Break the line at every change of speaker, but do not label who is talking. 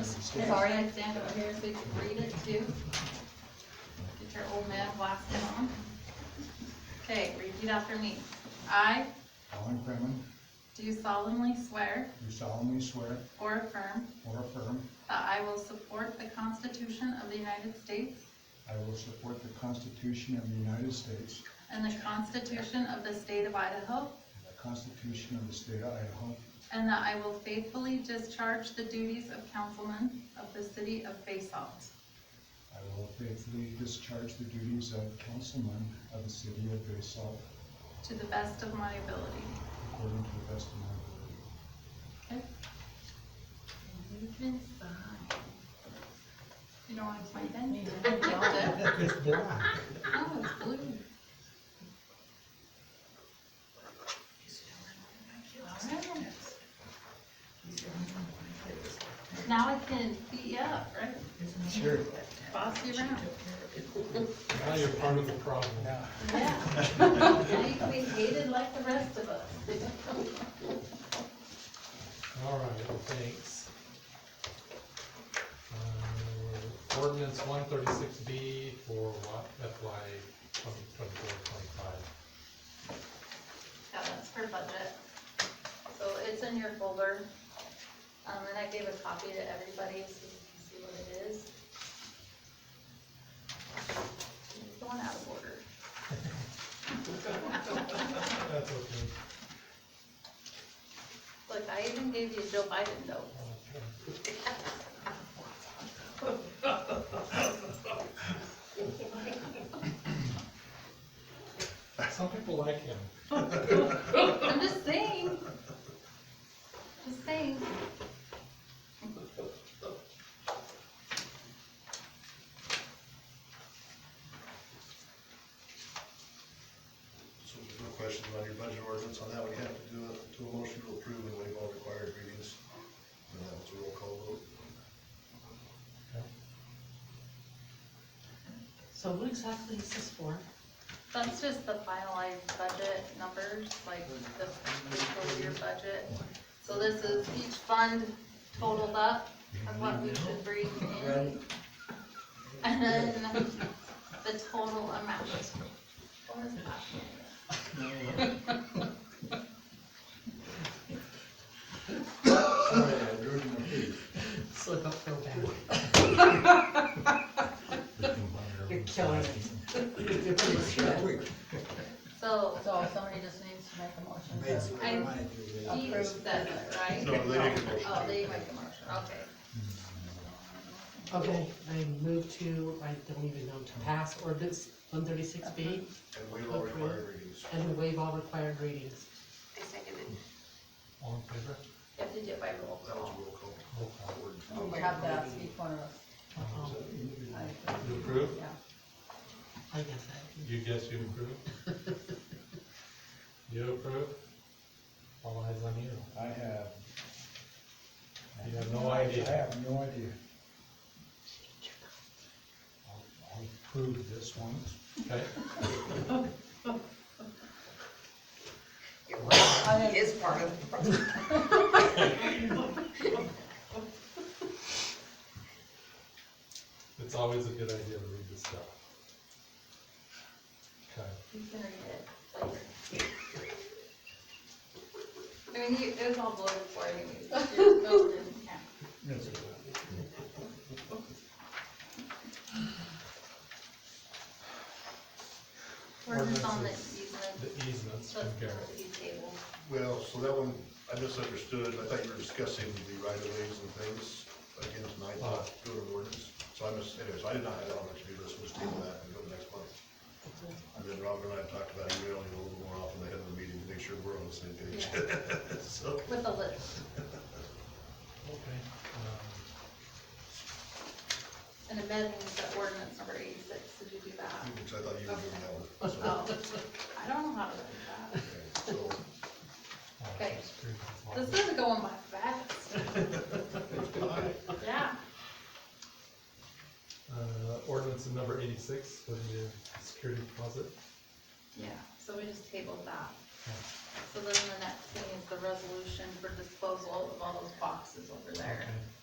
Sorry, I stand over here so you can read it too. Get your old man blasted on. Okay, repeat after me. I
Alan Kremen,
do solemnly swear
do solemnly swear
or affirm
or affirm
that I will support the Constitution of the United States
I will support the Constitution of the United States
and the Constitution of the State of Idaho,
and the Constitution of the State of Idaho,
and that I will faithfully discharge the duties of councilman of the city of Basalt.
I will faithfully discharge the duties of councilman of the city of Basalt
To the best of my ability.
according to the best of my ability.
You can sign. You don't want to sign that?
It's black.
Oh, it's blue. Alright. Now I can beat you up, right?
Sure.
Boss you around.
Now you're part of the problem.
Yeah. Now you can be hated like the rest of us.
All right, well, thanks. Um, Ordinance one thirty-six B for what, FY twenty twenty-four, twenty-five.
Yeah, that's for budget. So it's in your folder. Um, and I gave a copy to everybody so you can see what it is. It's going out of order.
That's okay.
Look, I even gave you Joe Biden notes.
Okay. Some people like him.
I'm just saying. Just saying.
So if there's no questions about your budget ordinance on that, we have to do a, do a motion to approve and waive all required readings. And that was a roll call vote.
So what exactly is this for?
That's just the finalized budget numbers, like the fiscal year budget. So this is each fund totaled up of what we should bring in. And then the total amount. What was that?
Sorry, I drew it in my feet.
So don't feel bad. You're killing it.
So
So somebody just needs to make a motion
I approve that, right?
No, they make a motion.
Oh, they make a motion, okay.
Okay, I move to, I don't even know, to pass ordinance one thirty-six B
And waive all required readings.
and waive all required readings.
I second it.
All in favor?
You have to do it by roll
That
call.
was a roll call.
Roll call.
Oh
to, Oh, we have to ask each one of us.
Uh-oh,
I-
You approve?
Yeah.
I guess I,
You guess you approve? You approve? All eyes on you.
I have.
You have no
I
idea.
have no idea. I'll, I'll prove this one.
Okay,
He is part of the problem.
it's always a good idea to read this stuff. Okay,
You can read it later. I mean, you, it was all bloated for you. Your notes didn't count. We're just on the
the
easement,
easements
so
from
it's
Gary.
not the table.
Well, so that one, I misunderstood. I thought you were discussing the right of ways and things again tonight, not doing an ordinance. So I mis, anyways, I did not have that on my to-do list. We'll just table that and go to next month. And then Robert and I have talked about emailing a little more often ahead of the meeting to make sure we're on the same page. So.
With a list,
Okay. um,
and amending the ordinance number eighty-six, did you do that?
Which I thought you were doing that one. So,
Oh, I don't know how to do
okay, So,
oh,
Okay.
screw this one.
that. This is going by fast, yeah.
Uh, ordinance number eighty-six for the security deposit.
Yeah, so we just tabled that.
Yeah.
So then the next thing is the resolution for disposal of all those boxes over there.
Okay.